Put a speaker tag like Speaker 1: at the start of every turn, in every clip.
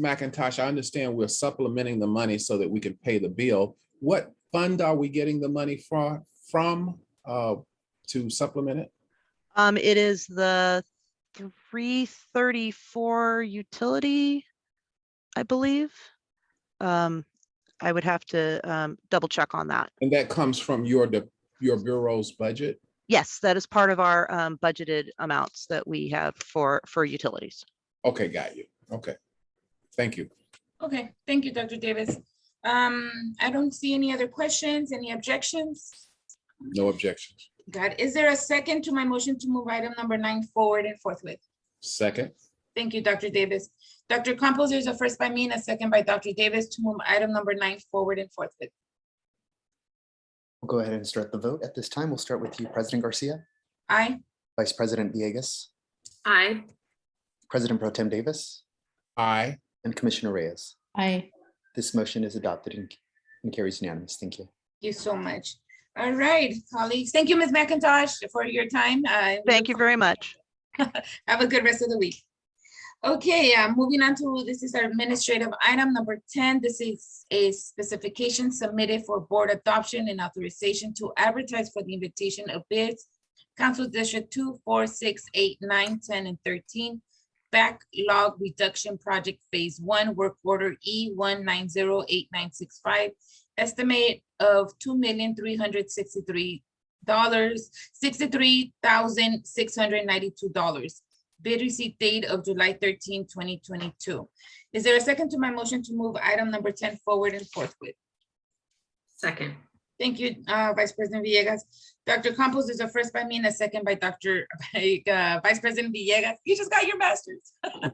Speaker 1: McIntosh, I understand we're supplementing the money so that we can pay the bill. What fund are we getting the money from, from, uh, to supplement it?
Speaker 2: Um, it is the three thirty-four utility, I believe. Um, I would have to, um, double check on that.
Speaker 1: And that comes from your, de- your bureau's budget?
Speaker 2: Yes, that is part of our, um, budgeted amounts that we have for, for utilities.
Speaker 1: Okay, got you. Okay. Thank you.
Speaker 3: Okay, thank you, Dr. Davis. Um, I don't see any other questions, any objections.
Speaker 1: No objections.
Speaker 3: God, is there a second to my motion to move item number nine forward and forthwith?
Speaker 1: Second,
Speaker 3: Thank you, Dr. Davis. Dr. Campos, there's a first by me and a second by Dr. Davis to move item number nine forward and forthwith.
Speaker 4: We'll go ahead and start the vote. At this time, we'll start with you, President Garcia,
Speaker 3: Aye.
Speaker 4: Vice President Villegas,
Speaker 3: Aye.
Speaker 4: President Pro Tem Davis,
Speaker 1: aye.
Speaker 4: and Commissioner Reyes.
Speaker 5: Aye.
Speaker 4: This motion is adopted and and carries unanimous. Thank you.
Speaker 3: You so much. All right, colleagues. Thank you, Ms. McIntosh, for your time. Uh, we
Speaker 2: Thank you very much.
Speaker 3: Have a good rest of the week. Okay, uh, moving on to, this is our administrative item number ten. This is a specification submitted for board adoption and authorization to advertise for the invitation of bids. Council District two, four, six, eight, nine, ten, and thirteen. Backlog Reduction Project Phase One, Work Order E one nine zero eight nine six five. Estimate of two million three hundred sixty-three dollars sixty-three thousand six hundred ninety-two dollars. Bid receipt date of July 13, 2022. Is there a second to my motion to move item number ten forward and forthwith?
Speaker 5: Second.
Speaker 3: Thank you, uh, Vice President Villegas. Dr. Campos is a first by me and a second by Dr. by, uh, Vice President Villegas. You just got your masters.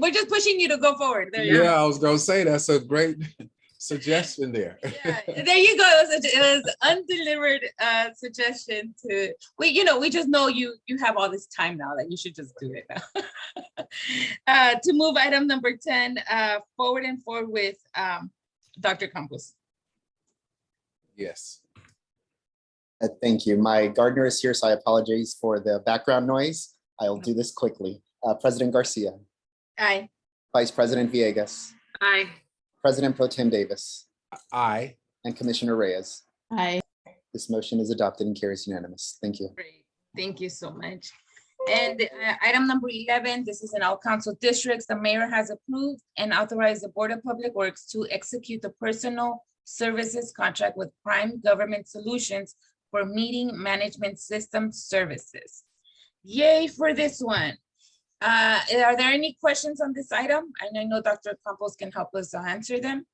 Speaker 3: We're just pushing you to go forward. There you go.
Speaker 1: Yeah, I was gonna say, that's a great suggestion there.
Speaker 3: Yeah, there you go. It was, a- it was undelivered uh, suggestion to we. You know, we just know you. You have all this time now that you should just do it now. uh, to move item number ten uh, forward and forward with um, Dr. Campos.
Speaker 1: Yes.
Speaker 4: Uh, Thank you. My gardener is here, so I apologize for the background noise. I'll do this quickly. Uh, President Garcia,
Speaker 3: Aye.
Speaker 4: Vice President Villegas,
Speaker 5: Aye.
Speaker 4: President Pro Tem Davis,
Speaker 1: Aye.
Speaker 4: and Commissioner Reyes.
Speaker 5: Aye.
Speaker 4: This motion is adopted and carries unanimous. Thank you.
Speaker 3: Great. Thank you so much. And uh, item number eleven. This is in all council districts. The mayor has approved and authorized the Board of Public Works to execute the personal services contract with Prime Government Solutions for meeting management system services. Yay for this one. Uh, Are there any questions on this item? And I know Dr. Campos can help us to answer them.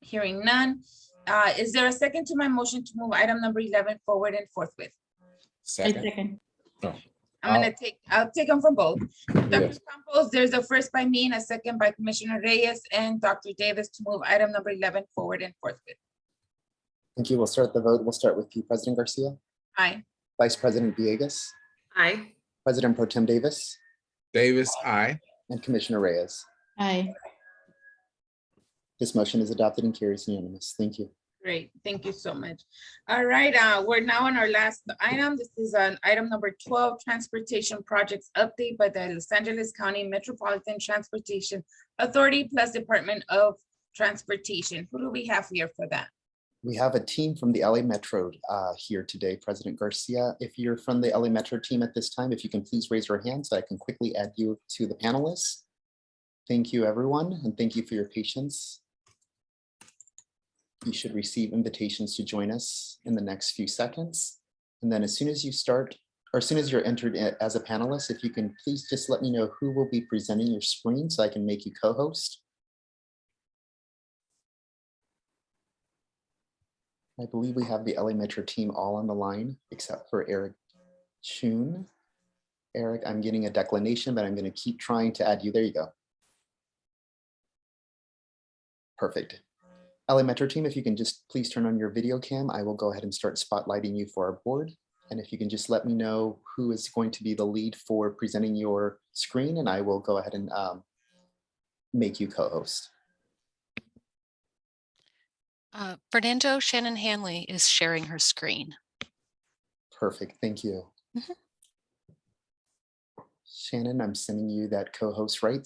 Speaker 3: Hearing none. Uh, Is there a second to my motion to move item number 11 forward and forthwith?
Speaker 1: Second,
Speaker 3: I'm gonna take, I'll take them from both. Dr.
Speaker 1: Yes.
Speaker 3: Campos, there's a first by me and a second by Commissioner Reyes and Dr. Davis to move item number 11 forward and forthwith.
Speaker 4: Thank you. We'll start the vote. We'll start with you, President Garcia,
Speaker 3: Aye.
Speaker 4: Vice President Villegas,
Speaker 5: Aye.
Speaker 4: President Pro Tem Davis,
Speaker 1: Davis, aye.
Speaker 4: and Commissioner Reyes.
Speaker 5: Aye.
Speaker 4: This motion is adopted and carries unanimous. Thank you.
Speaker 3: Great, thank you so much. All right, uh, we're now on our last item. This is on item number twelve, transportation projects update by the Los Angeles County Metropolitan Transportation Authority plus Department of Transportation. Who do we have here for that?
Speaker 4: We have a team from the LA Metro uh, here today, President Garcia. If you're from the LA Metro team at this time, if you can please raise your hand so I can quickly add you to the panelists. Thank you, everyone, and thank you for your patience. You should receive invitations to join us in the next few seconds. And then as soon as you start, or as soon as you're entered in as a panelist, if you can please just let me know who will be presenting your screen so I can make you co-host. I believe we have the LA Metro team all on the line except for Eric Chun. Eric, I'm getting a declination, but I'm going to keep trying to add you. There you go. Perfect. LA Metro team, if you can just please turn on your video cam, I will go ahead and start spotlighting you for our board. And if you can just let me know who is going to be the lead for presenting your screen, and I will go ahead and um, make you co-host.
Speaker 6: Uh, Fernando Shannon Hanley is sharing her screen.
Speaker 4: Perfect, thank you.
Speaker 6: Mhm.
Speaker 4: Shannon, I'm sending you that co-host right